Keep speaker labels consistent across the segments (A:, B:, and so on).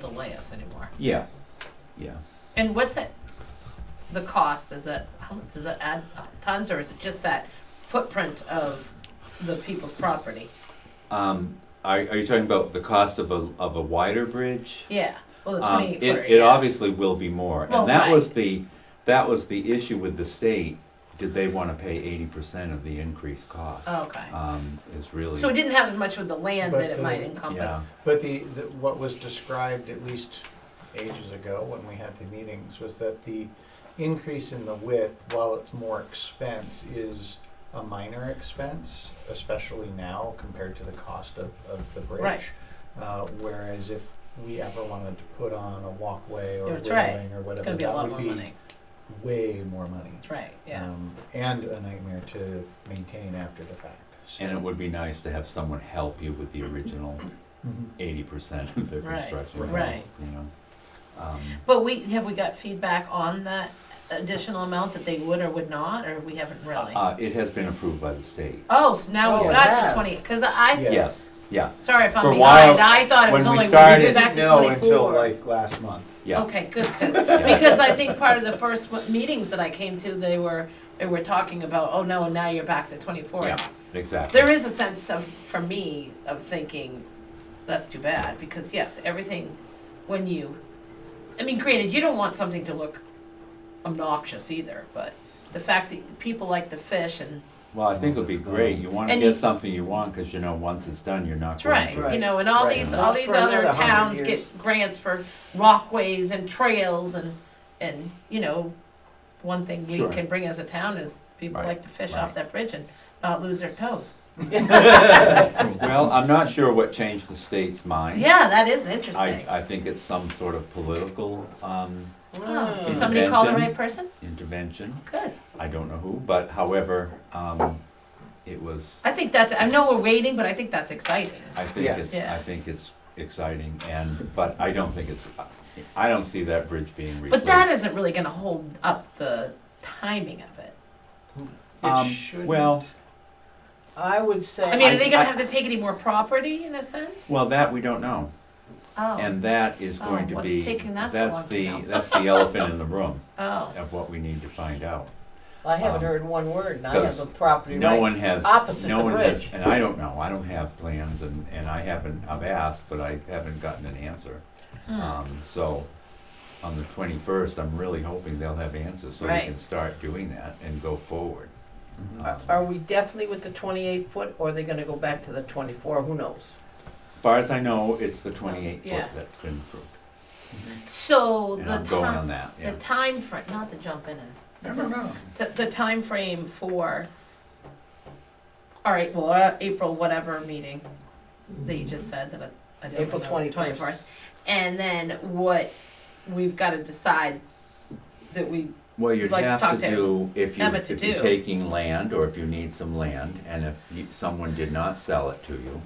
A: delay us anymore.
B: Yeah, yeah.
A: And what's it, the cost, is it, how- does it add tons, or is it just that footprint of the people's property?
B: Um, are, are you talking about the cost of a, of a wider bridge?
A: Yeah, well, the
B: Um,
A: twenty-eight
B: it,
A: footer,
B: it
A: yeah.
B: obviously will be more,
A: Well,
B: and that
A: right.
B: was the, that was the issue with the state. Did they wanna pay eighty percent of the increased cost?
A: Oh, Okay,
B: Um, is really.
A: so it didn't have as much with the land that
C: But
A: it
C: the-
A: might
C: Yeah.
A: encompass.
C: But the, the, what was described at least ages ago when we had the meetings was that the increase in the width, while it's more expense, is a minor expense, especially now compared to the cost of, of the bridge.
A: Right.
C: Uh, whereas if we ever wanted to put on a walkway or
A: That's right.
C: railing or
A: It's
C: whatever,
A: gonna be a lot
C: that would
A: more
C: be
A: money,
C: way more money.
A: that's right, yeah.
C: Um, and a nightmare to maintain after the fact, so.
B: And it would be nice to have someone help you with the original
C: Mhm.
B: eighty percent of the
A: Right,
B: construction
A: right.
B: cost, you know? Um,
A: But we, have we got feedback on that additional amount that they would or would not, or we haven't really?
B: Uh, it has been approved by the state.
A: Oh, so now
C: Oh,
A: we've
C: it
A: got the
C: has.
A: twenty, cause I,
C: Yeah.
B: Yes, yeah,
A: sorry if
B: For
A: I'm
B: a while,
A: behind, I thought it was
B: when we
A: only, we
B: started-
A: did back to
C: No,
A: twenty-four.
C: until like last month.
B: yeah.
A: Okay, good, 'cause- because I think part of the first mo- meetings that I came to, they were, they were talking about, oh no, now you're back to twenty-four.
B: Yeah, exactly.
A: There is a sense of, for me, of thinking, that's too bad, because yes, everything, when you, I mean, granted, you don't want something to look obnoxious either, but the fact that people like to fish and,
B: Well, I think it'll be great. You wanna
A: And
B: get
A: you-
B: something you want, cause you know, once it's done, you're not
A: that's
B: going
A: right,
B: to.
A: you
C: Right,
A: know, and all
C: right.
A: these,
B: Not
A: all these
C: for another
A: other
C: 100
A: towns
C: years.
A: get grants for walkways and trails and, and, you know, one thing we
B: Sure.
A: can bring as a town is people
B: Right,
A: like to fish off
B: right.
A: that bridge and not lose their toes.
B: Well, I'm not sure what changed the state's mind.
A: Yeah, that is interesting.
B: I, I think it's some sort of political, um,
A: Oh, Did somebody call the
B: Invention.
A: right person?
B: intervention.
A: Good.
B: I don't know who, but however, um, it was,
A: I think that's, I know we're waiting, but I think that's exciting.
B: I think
C: Yeah.
B: it's,
A: Yeah.
B: I think it's exciting and, but I don't think it's, I don't see that bridge being
A: But
B: replaced.
A: that isn't really gonna hold up the timing of it.
B: Um,
C: It shouldn't.
B: well-
D: I would say.
A: I mean, are they
B: I-
A: gonna have to take any more property in a sense?
B: Well, that we don't know.
A: Oh,
B: And that is
A: Oh,
B: going to
A: what's
B: be,
A: taking that so long
B: that's
A: to
B: the,
A: know?
B: that's the elephant in the room
A: oh,
B: of what we need to find out.
D: I haven't
B: um,
D: heard one word, and I have
B: because
D: a property
B: No
D: right.
B: one has,
D: opposite
B: no
D: the
B: one has,
D: bridge.
B: and I don't know, I don't have plans and, and I haven't, I've asked, but I haven't gotten an answer.
A: Hmm.
B: Um, so, on the twenty-first, I'm really hoping they'll have answers, so we
A: Right. Hmm.
B: can start doing that and go forward.
D: Are-
B: Um,
D: Are we definitely with the twenty-eight foot, or are they gonna go back to the twenty-four? Who knows?
B: As Far as I know, it's the
A: So,
B: twenty-eight foot
A: yeah.
B: that's been approved,
C: Mm-hmm.
A: so
B: and
A: the
B: I'm going on
A: time,
B: that,
A: the
B: yeah.
A: time frame, not to jump in and.
C: No, no, no.
A: The, the timeframe for, all right, well, uh, April whatever meeting that you just said that I, I don't
D: April
A: know,
D: 21st.
A: And then what, we've gotta decide that we,
B: Well, you'd
A: like to talk
B: have to
A: to
B: do, if you,
A: Emma to
B: if you're
A: do.
B: taking land, or if you need some land, and if you- someone did not sell it to you,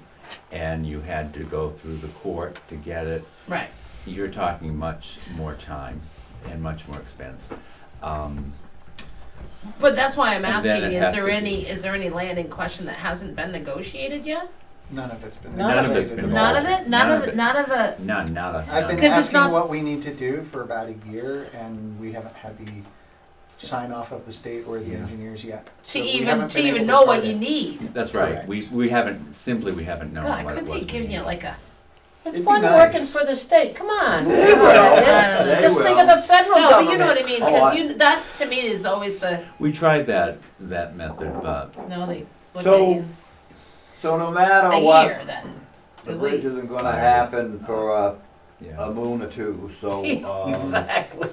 B: and you had to go through the court to get it,
A: right,
B: you're talking much more time and much more expense. Um,
A: but that's why I'm
B: And
A: asking,
B: then it
A: is
B: has
A: there
B: to
A: any,
B: be-
A: is there any land in question that hasn't been negotiated yet?
C: None of it's been.
D: None of
B: it's
C: negotiated
B: been
C: at all.
A: None of it, none
B: None
A: of,
B: of
A: the-
B: it.
A: none of the,
B: none, none.
C: I've been
A: Because it's
C: asking
A: not-
C: what we need to do for about a year, and we haven't had the sign off of the state or the
B: Yeah.
C: engineers yet. So
A: to
C: we
A: even,
C: haven't
A: to
C: been able
A: even know what
C: start
A: you
C: it.
A: need.
B: That's right,
C: Correct.
B: we, we haven't, simply we haven't known
A: God,
B: what it
A: could
B: was.
A: be giving you like a,
D: It's
C: It'd be
D: fun
C: nice.
D: working for the state, come on.
A: They will.
D: Just think of the federal
A: no, but you know what
D: government.
A: I mean,
B: Oh, I-
A: cause you, that to me is always the,
B: We tried that, that method, but
A: no, they look at
E: So-
A: you.
E: So no matter
A: a
E: what,
A: year then.
E: the
A: at
E: bridge
A: least.
E: isn't gonna happen for a, a
B: yeah,
E: moon or two, so, um,
D: Exactly.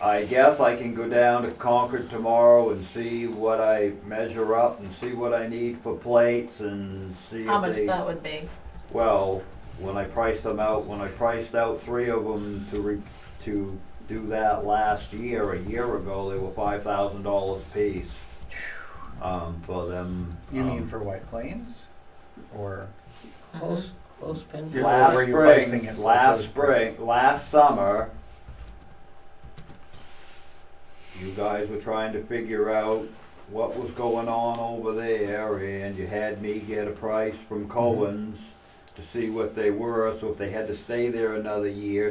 E: I guess I can go down to Concord tomorrow and see what I measure up and see what I need for plates and see
A: How
E: if
A: much
E: they,
A: that would be.
E: well, when I priced them out, when I priced out three of them to re, to do that last year, a year ago, they were five thousand dollars a piece. Um, for them.
C: You mean
E: um,
C: for White Plains, or
D: Close, close pin.
C: Yeah.
E: last
C: where you're pricing
E: spring,
C: it for
E: last
C: those
E: spring, last summer, you guys were trying to figure out what was going on over there, and you had me get a price from Cohen's to see what they were, so if they had to stay there another year,